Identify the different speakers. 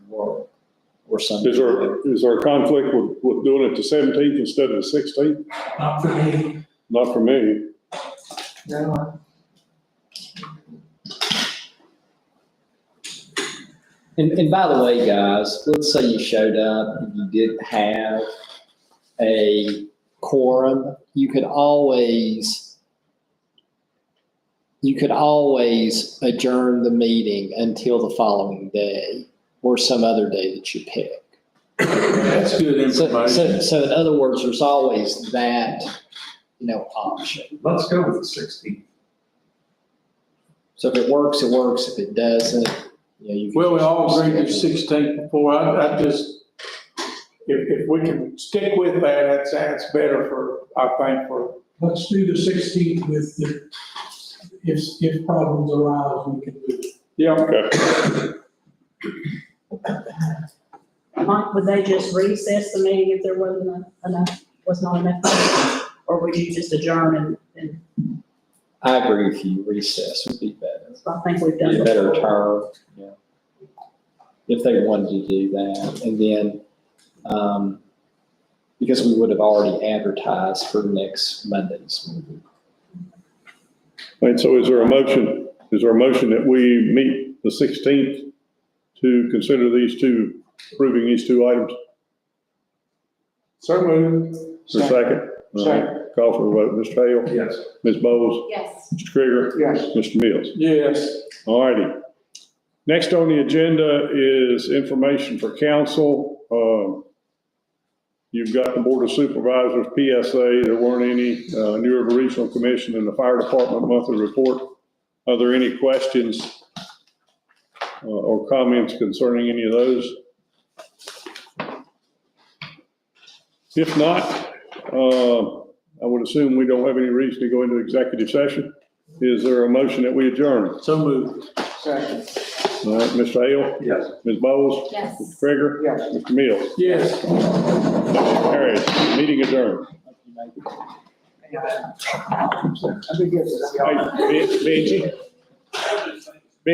Speaker 1: or, or something.
Speaker 2: Is there, is there a conflict with, with doing it the seventeenth instead of the sixteenth?
Speaker 3: Not for me,
Speaker 2: Not for me.
Speaker 3: no. I-
Speaker 1: And, and by the way, guys, let's say you showed up and you didn't have a quorum, you could always, you could always adjourn the meeting until the following day or some other day that you pick.
Speaker 4: That's good
Speaker 1: So, so,
Speaker 4: information.
Speaker 1: so in other words, there's always that, you know, option.
Speaker 4: Let's go with the sixteenth.
Speaker 1: So if it works, it works. If it doesn't, you know, you. can
Speaker 4: Well, we
Speaker 1: just-
Speaker 4: all agreed to sixteenth before, I, I just, if, if we can stick with that, that's, that's better for, I think, for,
Speaker 3: Let's do the sixteenth with the, if, if problems arise, we can do it.
Speaker 4: yeah,
Speaker 2: Okay.
Speaker 5: Mike, would they just recess the meeting if there wasn't a- enough, was not enough? Or would you just adjourn and, and,
Speaker 1: I agree with you. Recess would be better.
Speaker 5: I think we've done.
Speaker 1: be a better
Speaker 5: before.
Speaker 1: term, yeah. If they wanted to do that, and then, um, because we would have already advertised for next Monday's meeting.
Speaker 2: And so is there a motion, is there a motion that we meet the sixteenth to consider these two, approving these two items?
Speaker 4: so moved.
Speaker 2: For a second? All right. Call for a vote, Mr. Hale,
Speaker 4: Yes.
Speaker 2: Ms. Bowles,
Speaker 5: Yes.
Speaker 2: Mr. Krieger.
Speaker 4: Yes.
Speaker 2: Mr. Mills.
Speaker 4: Yes.
Speaker 2: All righty. Next on the agenda is information for council. Um, You've got the Board of Supervisors, PSA, there weren't any, uh, New River Regional Commission and the Fire Department monthly report. Are there any questions uh, or comments concerning any of those? If not, uh, I would assume we don't have any reason to go into executive session. Is there a motion that we adjourn?
Speaker 4: So moved. Second.
Speaker 2: All right, Mr. Hale,
Speaker 4: Yes.
Speaker 2: Ms. Bowles, Mr.
Speaker 5: Yes.
Speaker 2: Krieger,
Speaker 4: Yes.
Speaker 2: Mr. Mills.
Speaker 4: Yes.
Speaker 2: All right, meeting adjourned. Hey, Ben- Benji?